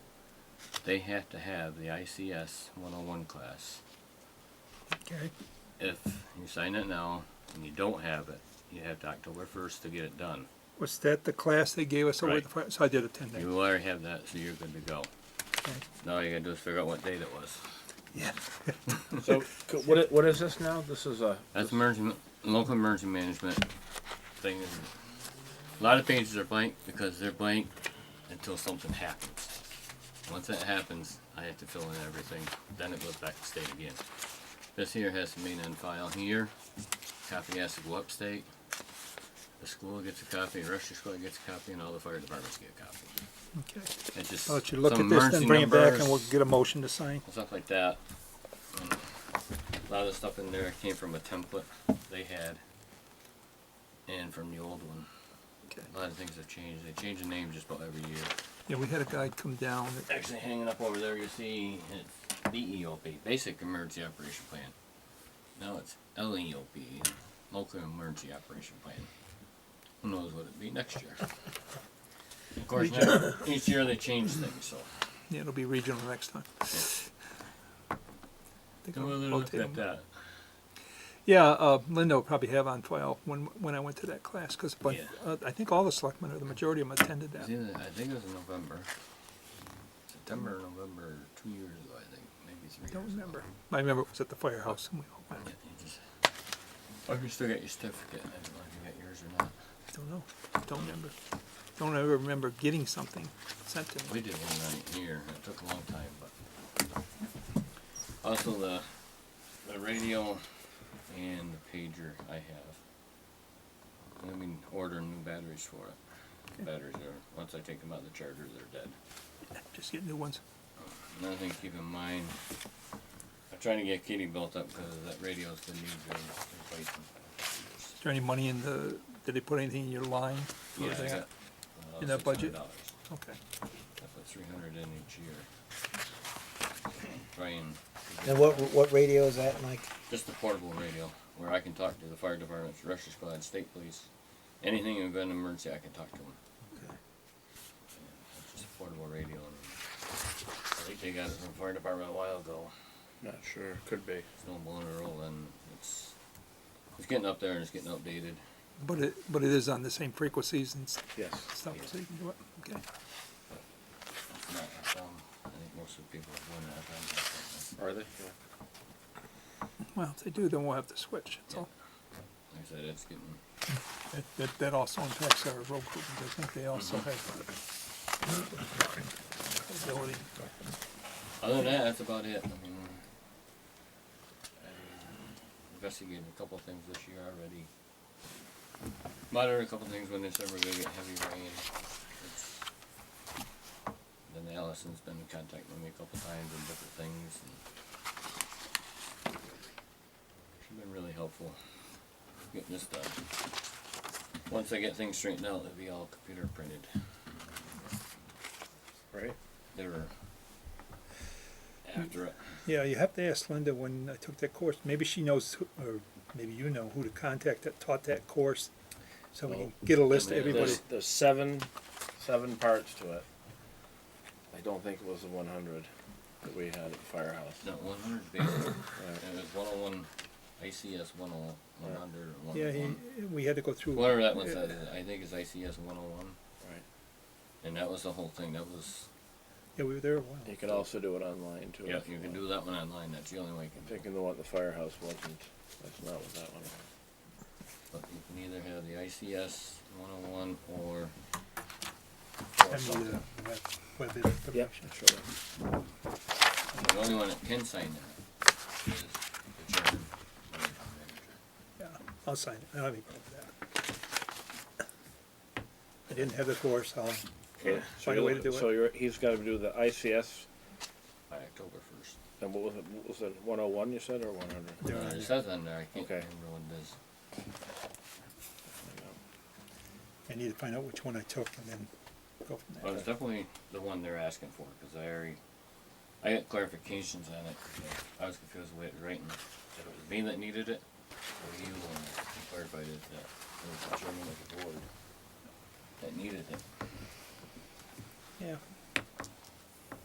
they have to have the ICS 101 class. Okay, If you sign it now and you don't have it, you have to October 1st to get it done. was that the class they gave us over Right. the, fi- so I did attend that. You already have that, so you're good to go. Okay. Now all you gotta do is figure out what date it was. Yeah. So, c- what, i- what is this now? This is a. That's emergency, ma- local emergency management thing. A lot of pages are blank because they're blank until something happens. Once that happens, I have to fill in everything, then it goes back to state again. This here has to be in file here, copy has to go up state. The school gets a copy, the rest of the school gets a copy, and all the fire departments get a copy. Okay, It just, I'll let you look some at this, emergency then bring it back and numbers we'll get a motion to sign. and stuff like that. And a lot of the stuff in there came from a template they had and from the old one. Okay. A lot of things have changed. They change the name just about every year. Yeah, we had a guy come down, that- Actually, hanging up over there, you see it's BEOP, Basic Emergency Operation Plan. Now it's LEOP, Local Emergency Operation Plan. Who knows what it'll be next year? Of course, now, each year they change things, so. yeah, it'll be regional next time. Think I'll We'll rotate look at them. that. Yeah, uh, Linda will probably have on file when, when I went to that class, because, but Yeah. uh, I think all the selectmen or the majority of them attended It that. was either- I think it was in November. September, or November, two years ago, I think, maybe three. Don't years ago. remember. I remember it was at the firehouse and we all Yeah, went. you just- Oh, you still got your certificate. I don't know if you got yours or not. Don't know. Don't remember. Don't ever remember getting something sent to me. We did one night here. It took a long time, but. Also, the, the radio and the pager I have. I mean, ordering new batteries for it. Batteries are, once I take them out of the charger, they're dead. Just get new ones. Another thing to keep in mind, I'm trying to get Kitty built up because that radio's been used in replacement. Is there any money in the, did they put anything in your line? for Yeah, I that? got, uh, In that budget? $600. Okay. I put three hundred in each year. Trying, to get- And what, what radio is that, Mike? just a portable radio where I can talk to the fire department, rescue squad, state police, anything in an emergency, I can talk to them. Just a portable radio and I think they got it from the fire department a while ago. Not sure. Could be. It's no blown or roll and it's, it's getting up there and it's getting updated. But it, but it is on the same frequencies and s- Yes. stuff, so you can do it. Okay. It's not a problem. I think most of the people are going to have them. Are they? Well, if they do, then we'll have to switch. That's all. Like I said, it's getting, That, that, that also impacts our road crew, because I think they also have Mm-hmm. ability. other than that, that's about it. I mean, I investigated a couple things this year already. Monitored a couple things when it's ever gonna get heavy rain. It's- Then Allison's been in contact with me a couple times and different things and she's been really helpful getting this done. Once I get things straightened out, it'll be all computer printed. Right. They were after it. Yeah, you have to ask Linda when I took that course, maybe she knows, who- or maybe you know who to contact that taught that course. So we can get a list of I mean, everybody. There's, there's seven, seven parts to it. I don't think it was the 100 that we had at the firehouse. No, one hundred basic. Right. It was one oh one, ICS one oh, one hundred, one Yeah, oh he, one. we had to go through. Whatever that one Yeah. says, I think it's ICS one oh one, Right. and that was the whole thing, that was, Yeah, we were there a while. You could also do it online too. yeah, if you can want. do that one online, that's the only way you can do it. Thinking the one at the firehouse wasn't. That's not what that one. was. But you can either have the ICS one oh one or. or And uh, something. the web, web information. Sure. The only one that can sign that is the chairman. or the manager. Yeah, I'll sign it. I don't have any problem with that. I didn't have the course, I'll, So Find a you're way to looking- do it. So you're, he's gotta do the ICS, By October first. Uh, and what was it, what was it, one oh one you said, or one hundred? They're on It there. says on there, I can't Okay. remember what it is. I need to find out which one I took and then go Well, from it's there. definitely the one they're asking for, cause I already, I got clarifications on it, 'cause I was confused with writing, if it was me that needed it, or you, and I clarified it, that it was the chairman of the board that needed it. Yeah,